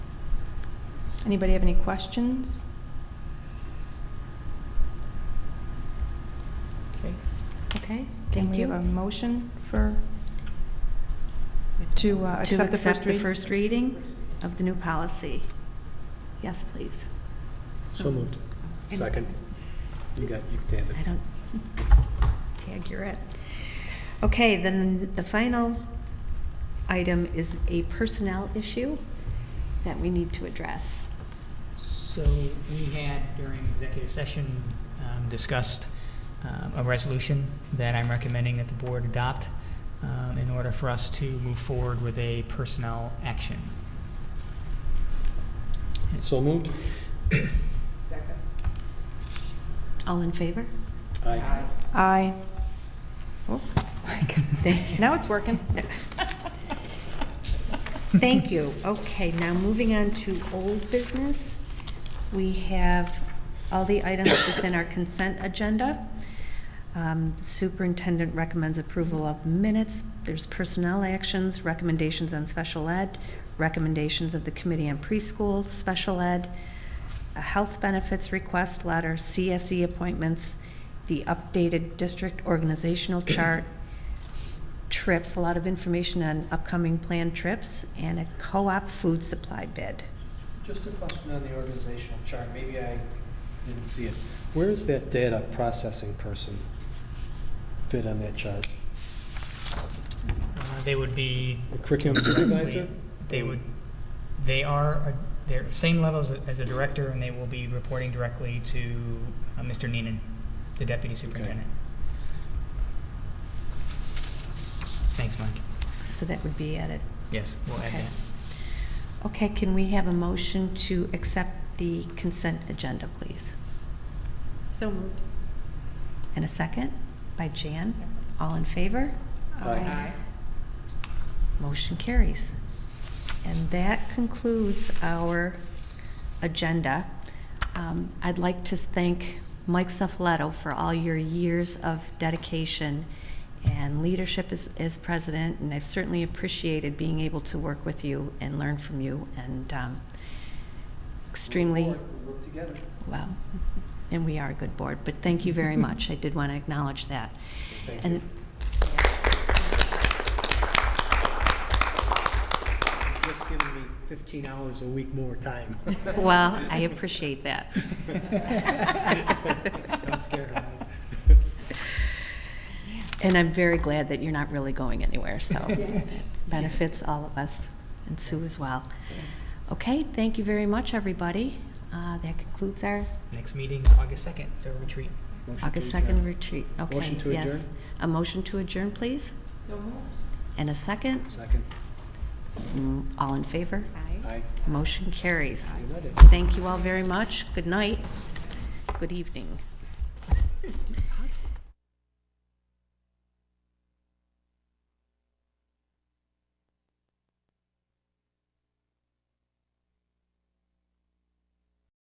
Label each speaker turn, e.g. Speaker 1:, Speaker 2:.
Speaker 1: Anybody have any questions?
Speaker 2: Okay.
Speaker 3: Okay,
Speaker 1: Can
Speaker 3: thank
Speaker 1: we have a
Speaker 3: you.
Speaker 1: motion for, to uh,
Speaker 3: To
Speaker 1: accept the first
Speaker 3: accept the
Speaker 1: reading?
Speaker 3: first reading of the new policy. Yes, please.
Speaker 4: So moved. Second. You got, you can have it.
Speaker 3: I don't, tag, you're it. Okay, then the final item is a personnel issue that we need to address.
Speaker 2: So we had during executive session um, discussed um, a resolution that I'm recommending that the board adopt um, in order for us to move forward with a personnel action.
Speaker 4: So moved?
Speaker 3: All in favor?
Speaker 4: Aye.
Speaker 1: Aye.
Speaker 3: Oh, Thank you.
Speaker 1: Now it's working.
Speaker 3: Thank you. Okay, now moving on to old business. We have all the items within our consent agenda. Um, Superintendent recommends approval of minutes. There's personnel actions, recommendations on special ed, recommendations of the Committee on Preschool, special ed, a health benefits request letter, CSE E appointments, the updated district organizational chart, trips, a lot of information on upcoming planned trips, and a co-op food supply bid.
Speaker 4: Just a question on the organizational chart, maybe I didn't see it. Where is that data processing person fit on that chart?
Speaker 2: Uh, They would be.
Speaker 4: The curriculum supervisor?
Speaker 2: They would, they are, a- they're same level as a- as a director, and they will be reporting directly to uh, Mr. Neenan, the deputy superintendent. Thanks, Mike.
Speaker 3: So that would be added.
Speaker 2: Yes, we'll add
Speaker 3: Okay.
Speaker 2: that.
Speaker 3: Okay, can we have a motion to accept the consent agenda, please?
Speaker 5: So moved.
Speaker 3: And a second by Jan. All in favor?
Speaker 4: Aye.
Speaker 3: Motion carries. And that concludes our agenda. Um, I'd like to thank Mike Suffoletto for all your years of dedication and leadership as, as president, and I've certainly appreciated being able to work with you and learn from you, and um, extremely,
Speaker 4: Work together.
Speaker 3: well, and we are a good board, but thank you very much. I did want to acknowledge that.
Speaker 4: Thank
Speaker 3: And
Speaker 4: Just giving me 15 hours a week more time.
Speaker 3: Well, I appreciate that.
Speaker 4: Don't scare her.
Speaker 3: And I'm very glad that you're not really going anywhere, so benefits all of us, and Sue as well. Okay, thank you very much, everybody. Uh, That concludes our
Speaker 2: Next meeting is August 2nd, it's our retreat.
Speaker 4: Motion to
Speaker 3: August
Speaker 4: adjourn.
Speaker 3: 2nd retreat. Okay,
Speaker 4: Motion to
Speaker 3: yes.
Speaker 4: adjourn?
Speaker 3: A motion to adjourn, please?
Speaker 5: So moved.
Speaker 3: And a second?
Speaker 4: Second.
Speaker 3: Mm, All in favor?
Speaker 5: Aye.
Speaker 4: Aye.
Speaker 3: Motion carries.
Speaker 4: United.
Speaker 3: Thank you all very much. Good night. Good evening.